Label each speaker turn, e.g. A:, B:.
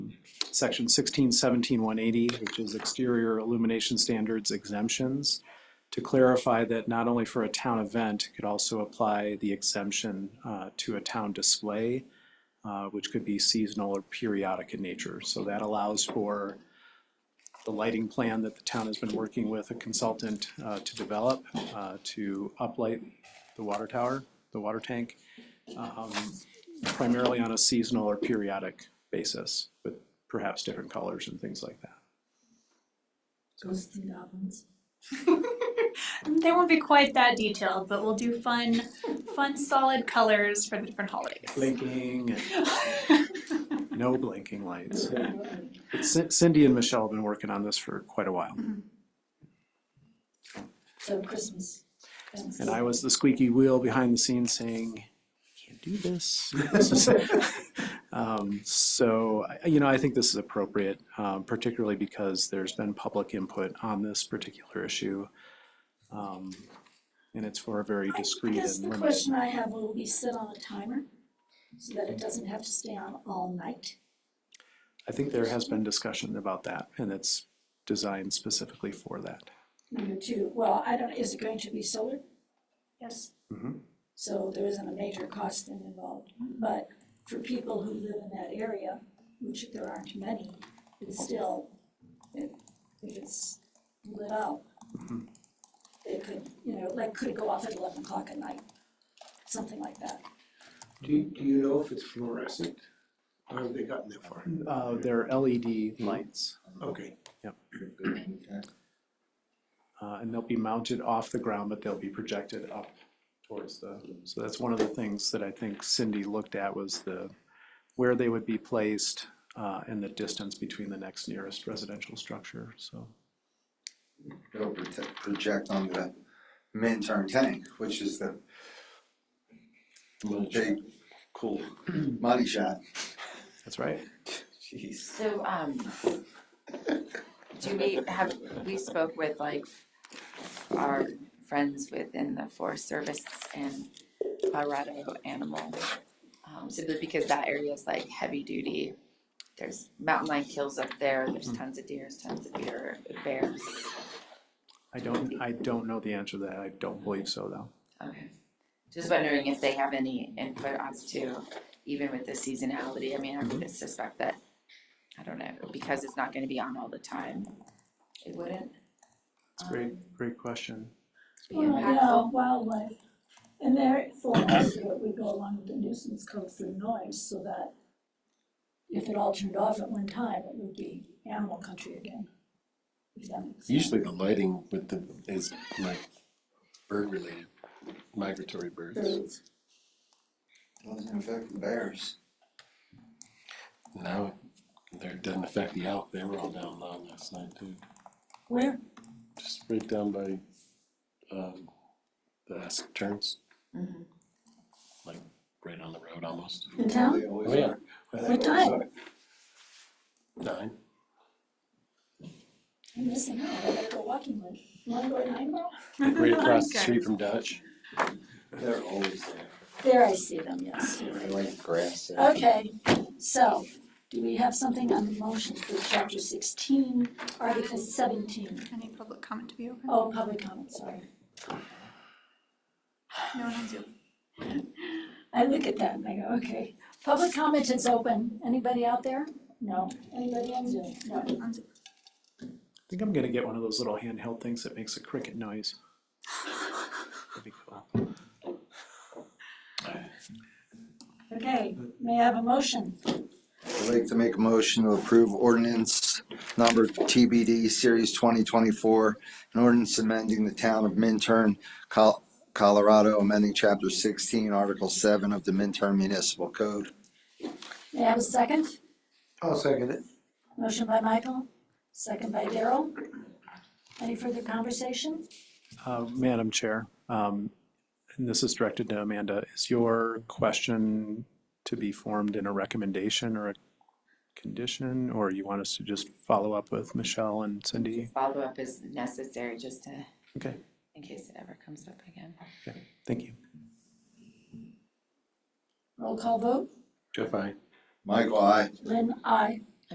A: section sixteen seventeen one eighty, which is exterior illumination standards exemptions, to clarify that not only for a town event, it could also apply the exemption uh, to a town display, uh, which could be seasonal or periodic in nature. So that allows for the lighting plan that the town has been working with a consultant uh, to develop, uh, to uplight the water tower, the water tank, um, primarily on a seasonal or periodic basis, with perhaps different colors and things like that.
B: Ghosts and goblins. they won't be quite that detailed, but we'll do fun, fun solid colors for the different holidays.
A: Blinking and no blinking lights. But Cin- Cindy and Michelle have been working on this for quite a while.
C: Mm-hmm. So Christmas. Christmas.
A: And I was the squeaky wheel behind the scenes saying, can't do this. This is- Um, So, I- you know, I think this is appropriate, um, particularly because there's been public input on this particular issue. Um, And it's for a very
C: I
A: discreet
C: guess
A: and
C: the
A: limited.
C: question I have, will we sit on a timer so that it doesn't have to stay on all night?
A: I think there has been discussion about that and it's designed specifically for that.
C: Number two, well, I don't, is it going to be solar? Yes.
A: Mhm.
C: So there isn't a major cost thing involved, but for people who live in that area, which there aren't many, it's still, if if it's lit up,
A: Mhm.
C: it could, you know, like, could go off at eleven o'clock at night, something like that.
D: Do, do you know if it's fluorescent? Or have they gotten that far?
A: Uh, There are LED lights
D: Okay,
A: uh, and they'll be mounted off the ground, but they'll be projected up towards the, so that's one of the things that I think Cindy looked at was the, where they would be placed uh, and the distance between the next nearest residential structure, so.
E: it'll prote- project on the midterm tank, which is the little big, cool money shot.
A: That's right.
E: Jeez.
F: So, um, do we have, we spoke with like our friends within the Forest Service and Colorado Animal. Um, simply because that area is like heavy duty. There's mountain lion kills up there, there's tons of deers, tons of deer, bears.
A: I don't, I don't know the answer to that. I don't believe so, though.
F: Okay. Just wondering if they have any input as to, even with the seasonality, I mean, I
A: Mm-hmm.
F: would suspect that, I don't know, because it's not gonna be on all the time, it wouldn't.
A: It's a great,
F: um,
A: great question.
F: be
C: Well,
F: impactful.
C: yeah, wildlife. And therefore, also we go along with the nuisance code for noise, so that if it all turned off at one time, it would be animal country again. If that makes sense.
G: Usually the lighting with the, is like bird related, migratory birds.
C: Birds.
E: Doesn't affect the bears.
G: Now, there, it doesn't affect the elk, they were all down low last night too.
C: Where?
G: Just right down by, um, the Essex turns,
F: Mhm.
G: like right on the road almost.
C: In town?
E: They always
G: Oh, yeah.
E: are. They
C: What
E: always
C: time?
E: are.
G: Nine,
C: I'm missing out, I gotta go walking one. You wanna go at nine mile?
G: like right across
B: uh,
G: the street from Dutch.
E: They're always there.
C: There I see them, yes.
E: They like grass there.
C: Okay, so, do we have something on the motion for chapter sixteen, article seventeen?
B: Any public comment to be open?
C: Oh, public comment, sorry.
B: No one has you.
C: I look at that and I go, okay, public comment is open. Anybody out there? No. Anybody on Zoom? No.
B: on Zoom.
A: I think I'm gonna get one of those little handheld things that makes a cricket noise. That'd be cool.
C: Okay, may I have a motion?
E: I'd like to make a motion to approve ordinance number TBD Series twenty twenty-four, an ordinance amending the town of Minturn, Col- Colorado, amending chapter sixteen, article seven of the Minturn Municipal Code.
C: May I have a second?
D: I'll second it.
C: Motion by Michael, second by Daryl. Any further conversation?
A: Uh, Madam Chair, um, and this is directed to Amanda, is your question to be formed in a recommendation or a condition? Or you want us to just follow up with Michelle and Cindy?
F: Follow-up is necessary just to,
A: Okay,
F: in case it ever comes up again.
A: thank you.
C: Roll call vote.
G: Jeff, I,
E: Michael, I.
C: Lynn, aye.